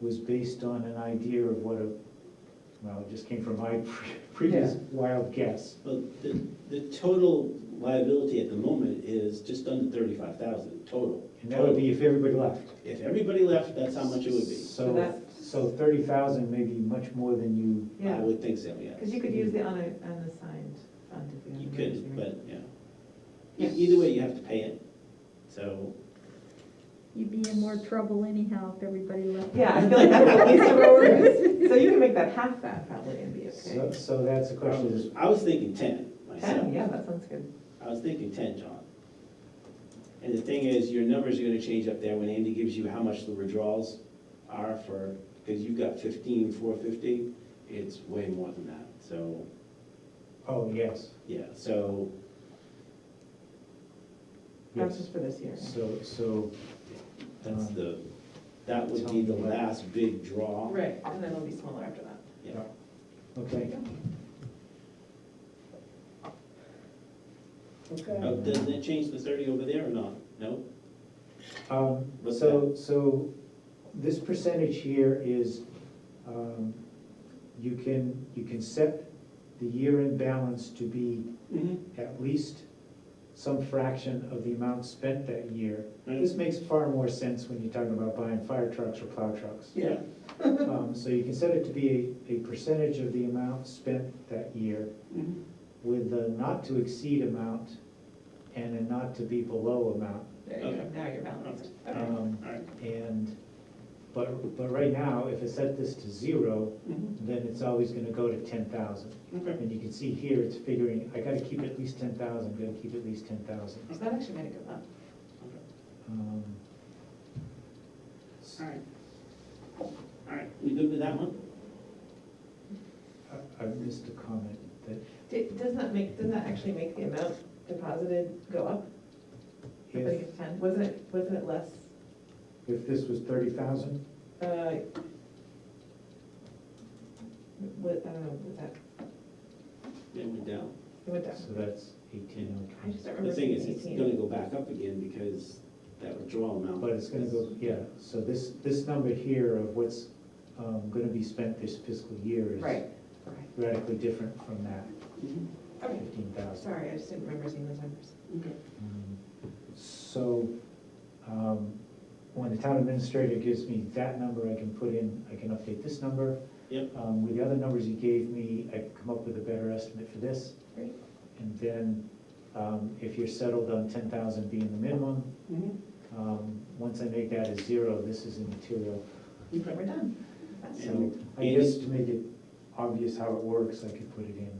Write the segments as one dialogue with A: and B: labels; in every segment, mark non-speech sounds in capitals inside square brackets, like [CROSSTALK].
A: was based on an idea of what a, well, it just came from my [LAUGHS] pre- previous wild guess.
B: Well, the, the total liability at the moment is just under thirty-five thousand total.
A: And that would be if everybody left.
B: If everybody left, Oh. that's how much it would be.
C: So
A: So,
C: that-
A: so thirty thousand may be much more than you,
B: I
C: Yeah,
B: would think so, yeah.
C: because you could use the una- unassigned fund if you.
B: You
C: have
B: could,
C: emergency.
B: but, you know.
C: Yeah.
B: E- Either way, you have to pay it, so.
D: You'd be in more trouble anyhow if everybody left.
C: Yeah, I feel like that's
D: [LAUGHS]
C: at least where we're, at. so you can make that half that probably and be
A: so,
C: okay.
A: so that's the question is,
B: I was thinking ten myself.
C: Ten, yeah, that sounds good.
B: I was thinking ten, John. And the thing is, your numbers are gonna change up there when Andy gives you how much the withdrawals are for, because you've got fifteen, four fifty, it's way more than that, so,
A: oh, yes,
B: yeah, so,
C: That's
A: yes.
C: just for this year.
A: So, so,
B: that's the, that would be the last big draw.
C: Right, and then it'll be smaller after that.
B: Yeah.
A: okay,
B: Oh,
E: Okay,
B: Doesn't that change the thirty over there or not? No?
A: um,
B: What's
A: so, so this percentage here is, um, you can, you can set the year-end balance to be
B: Mm-hmm.
A: at least some fraction of the amount spent that year. This makes far more sense when you're talking about buying fire trucks or plow trucks.
B: Yeah,
A: Um, So you can set it to be a, a percentage of the amount spent that year
B: Mhm.
A: with a not to exceed amount and a not to be below amount.
C: There
B: you go. Okay.
C: now you're
B: balanced.
A: Um,
B: all right.
A: And, but, but right now, if I set this to zero,
B: Mhm.
A: then it's always gonna go to ten thousand.
B: Okay.
A: And you can see here, it's figuring, I gotta keep at least ten thousand, gotta keep at least ten thousand.
C: So that actually made it go up.
A: Um,
B: All right. All right, we good with that one?
A: I- I missed a comment that
C: Did, doesn't that make, doesn't that actually make the amount deposited go up? Everybody
A: if,
C: gets ten, wasn't it, wasn't it less?
A: if this was thirty thousand,
C: uh, What, I don't know, was uh, that,
B: Yeah, we're down.
C: it went down.
A: so that's eighteen
C: I
A: oh twenty.
C: just don't
B: The
C: remember
B: thing
C: seeing
B: is, it's
C: eighteen.
B: gonna go back up again because that withdrawal amount.
A: But it's gonna go,
B: is-
A: yeah, so this, this number here of what's, um, gonna be spent this fiscal year is
C: Right, right.
A: radically different from that
B: Mhm.
C: Okay,
A: fifteen thousand.
C: sorry, I just didn't remember seeing those numbers.
B: Okay.
A: So, um, when the town administrator gives me that number, I can put in, I can update this number.
B: Yep.
A: Um, with the other numbers you gave me, I can come up with a better estimate for this.
C: Great.
A: And then, um, if you're settled on ten thousand being the minimum,
B: Mm-hmm.
A: um, once I make that a zero, this is immaterial.
C: But
B: Okay.
C: we're done. That's-
A: So
B: And-
A: I guess to make it obvious how it works, I could put it in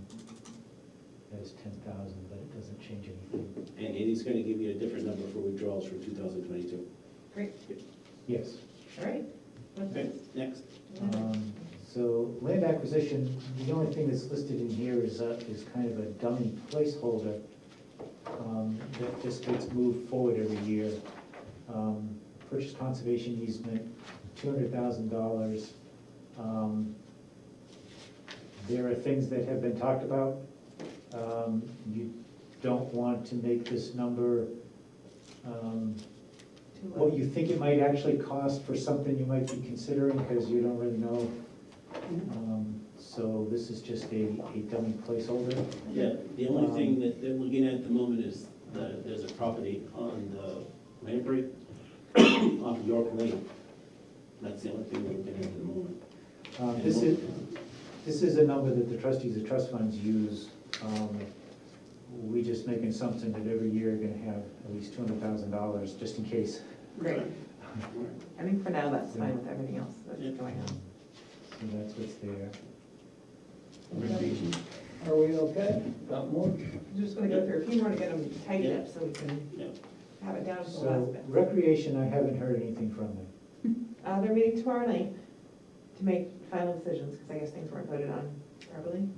A: as ten thousand, but it doesn't change anything.
B: And Andy's gonna give you a different number for withdrawals for two thousand twenty-two.
C: Great,
A: Yes.
C: all right. What's
B: Okay,
C: next?
B: next.
A: Um, So land acquisition, the only thing that's listed in here is, a- is kind of a dummy placeholder um, that just gets moved forward every year. Um, Purchase conservation easement, two hundred thousand dollars. Um, There are things that have been talked about. Um, You don't want to make this number um,
C: Too low.
A: what you think it might actually cost for something you might be considering, because you don't really know. Um, So this is just a, a dummy placeholder.
B: Yeah, the only
A: Um,
B: thing that they're looking at at the moment is the, there's a property on the Lamprey [COUGHS] off York Lane. That's the only thing we're looking at at the moment.
A: Um, This is, this is a number that the trustees of trust funds use. Um, We just make an assumption that every year you're gonna have at least two hundred thousand dollars, just in case.
C: Great,
B: All right.
C: I think for now that's fine with everything else that's
B: Yeah.
C: going on.
A: So that's what's there.
B: Recreation.
E: are we okay? Got more?
C: I'm just gonna go through a few more to get them tightened
B: Yeah.
C: up so we can
B: Yeah.
C: have it down to the last
A: So
C: bit.
A: recreation, I haven't heard anything from them.
C: Uh, they're meeting tomorrow night to make final decisions, because I guess things weren't voted on properly.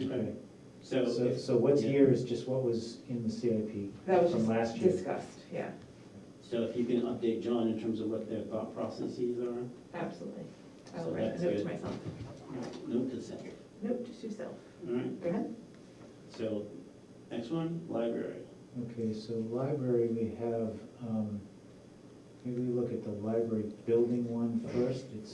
B: Okay. So,
A: So,
B: if-
A: so what's
B: Yeah.
A: here is just what was in the CIP
C: That was
A: from last
C: just
A: year.
C: discussed, yeah,
B: so if you can update John in terms of what their thought processes are,
C: absolutely. I
B: So
C: will write
B: that's
C: a note to
B: good.
C: myself.
B: no consent,
C: Note to yourself.
B: all right?
C: Go ahead.
B: So, next one, library.
A: Okay, so library, we have, um, maybe we look at the library building one first. It's